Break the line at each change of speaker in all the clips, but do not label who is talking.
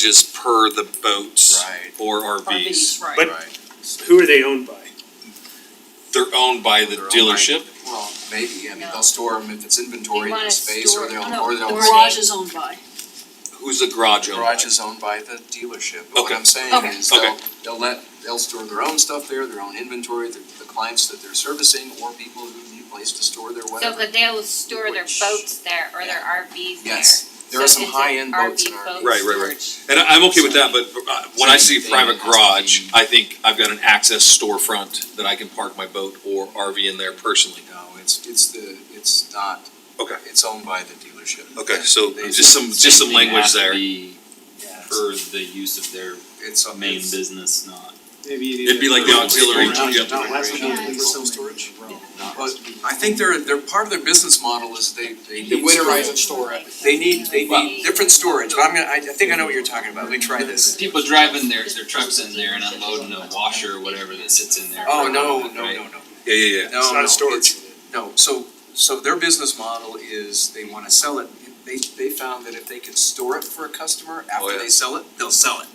usages per the boats
Right.
or RVs.
But-
Right.
Who are they owned by?
They're owned by the
They're owned by-
dealership.
Well, maybe, I mean,
No.
they'll store them if it's inventory
They
in
wanna
the space
store
or
it.
they'll,
No,
or they'll.
the
Garage is owned by.
Who's the garage owned by?
Garage is owned by the dealership, but what
Okay.
I'm saying
Okay.
is
Okay.
they'll, they'll let, they'll store their own stuff there, their own inventory, the, the clients that they're servicing or people who need a place to store their
So
whatever.
could they will store their
Which-
boats there or their RVs there?
Yes, there are
So
some
it's an
high-end boats in
RV
our-
boat
Right, right, right.
storage.
And I- I'm okay with that, but uh, when I see
Same thing
private
has to be-
garage, I think I've got an access storefront that I can park my boat or RV in there personally.
No, it's, it's the, it's not.
Okay.
It's owned by the dealership.
Okay, so
They-
just some, just some language there.
Yeah.
For the use of their
It's a
main business, not.
Maybe it is.
It'd be like the auxiliary.
Not-
yeah.
not less than
Yeah.
self storage. But I think they're, they're, part of their business model is they, they
They
need winterize and store it. They need, they need different storage, but I'm gonna, I, I think I know what you're talking about, let me try this.
People driving their, their trucks in there and unloading a washer or whatever that sits in there.
Oh, no, no, no, no.
Yeah, yeah, yeah.
No,
not
no,
storage.
it's- No, so, so their business model is they wanna sell it, they, they found that if they can store it for a customer
Oh, yeah.
after they sell it, they'll sell it.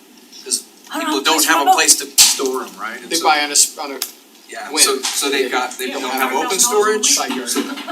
I
People don't
that's
have
my
a
boat.
place to store them, right? And
They
so-
buy on a, s- on a
Yeah,
When?
so, so they've got, they
Yeah,
don't
we'll
have
have
open
ourselves
storage,
side yard.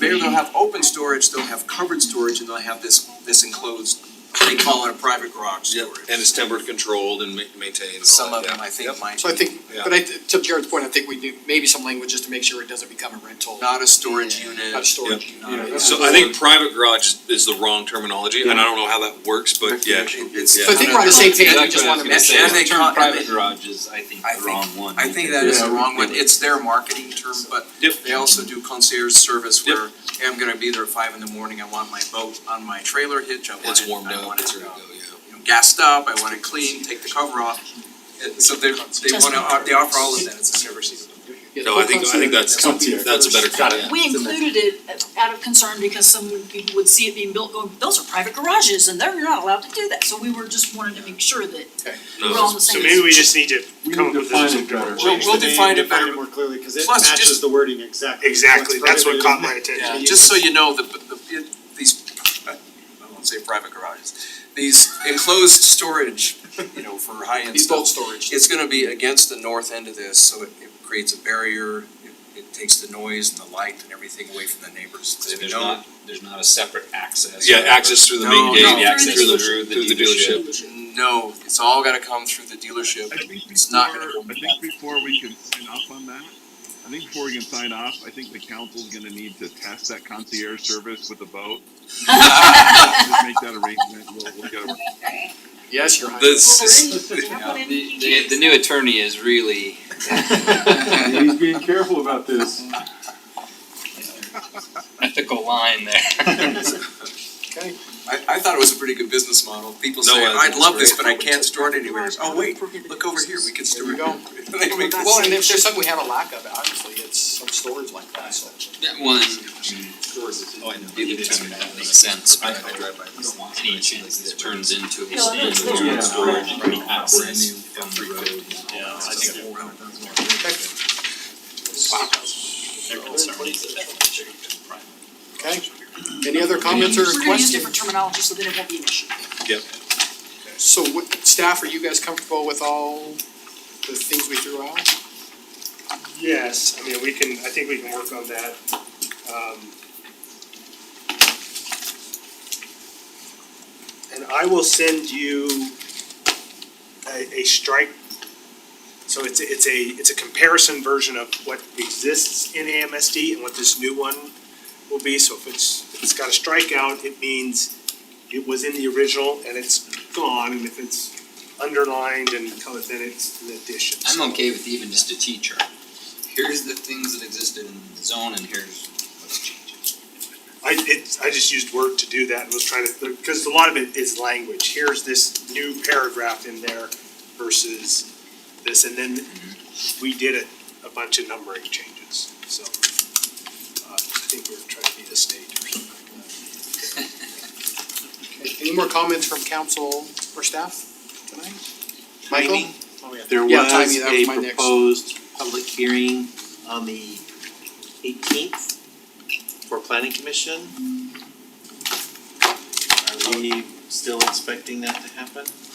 maybe they'll have open storage, they'll have covered storage, and they'll have this, this enclosed, they call it a private garage
Yep,
storage.
and it's tempered controlled and ma- maintained and all
Some
that,
of them,
yeah.
I think, might.
So I think,
Yeah.
but I, to Jared's point, I think we do maybe some language just to make sure it doesn't become a rental, not
Not a storage unit.
a storage.
not-
unit.
yeah.
So I think private garage is- is the wrong terminology, and I don't know how that works, but yeah.
It's-
Yeah.
So I think we're on the same page, we just wanna make
That's what I was gonna say.
sure.
The term
And they con- and
private
they-
garage is, I think,
I
the wrong one.
I think that is the
Yeah.
wrong one, it's their marketing term, but
Yep.
they also do concierge service
Yep.
where, hey, I'm gonna be there at five in the morning, I want my boat on my trailer hitch, I want
It's
it-
warmed
I
up,
want it
it's
to
ready to
go.
go, yeah.
you know, gassed up, I want it clean, take the cover off. And so they, they wanna, uh, they offer all of that, it's a service.
Yeah,
No, I think, I think that's,
concierge.
that's a better term, yeah.
We included it out of concern because some would- people would see it being built, going, those are private garages and they're not allowed to do that, so we were just wanting to make sure that we're all
No,
on the
So
same.
maybe we just need to
We
come
need
up
to
with
define
this.
it better.
We'll- we'll define it better.
more clearly, cause it
Plus, just-
matches the wording exactly.
Exactly,
What's
that's what
prohibited
caught my
is-
attention.
Yeah, just so you know, the, the, it- these, I won't say private garages, these enclosed storage, you know, for high-end
These
stuff.
bulk storage.
It's gonna be against the north end of this, so it, it creates a barrier, it, it takes the noise and the light and everything away from the neighbors.
So
So we
there's
know-
not, there's not a separate access.
Yeah,
or-
access through the main
No,
gate,
no,
Maybe access
through the,
through the
through the dealership.
No, it's all gotta come through the dealership.
I think
It's not gonna
before,
come
I
back.
think before we can sign off on that, I think before we can sign off, I think the council's gonna need to test that concierge service with a vote. Just make that arrangement, we'll, we'll get a
Right.
Yes, you're right.
This,
The, the, the new attorney is really.
He's being careful about this.
Ethical line there.
Okay.
I, I thought it was a pretty good business model. People
No, I
say,
think
I'd
it's
love this,
great.
but I can't store it anywhere. Oh, wait, look over here, we can store
There
it.
you go.
They make-
Well, and if there's something we have a lack of, obviously, it's some storage like that, so.
That one. Oh, I know. Either term that makes sense, but I don't want any chance that it turns into a
No, that's-
standard
Yeah.
storage and any access from the road.
Yeah, I think-
Their concern is that that would be a
Okay,
private.
any other comments or
We're gonna use different
questions?
terminology so that it won't be an issue.
So what, staff, are you guys comfortable with all the things we threw out?
Yes, I mean, we can, I think we can work on that. Um, And I will send you a, a strike. So it's, a- it's a, it's a comparison version of what exists in AMSD and what this new one will be. So if it's, if it's got a strikeout, it means it was in the original and it's gone. And if it's underlined and colored, then it's an addition. So-
I'm okay with even just a teacher. Here's the things that existed in the zone and here's what's changing.
I it, I just used Word to do that and was trying to, because a lot of it is language, here's this new paragraph in there versus this, and then we did a, a bunch of numbering changes, so. Uh, I think we were trying to be the state or something like that.
Okay, Any more comments from council or staff tonight? Michael?
Timing.
Oh, yeah.
There
Yeah, timing,
was
that was
a
my next.
proposed public hearing on the eighteenth for planning commission. Are we still expecting that to happen?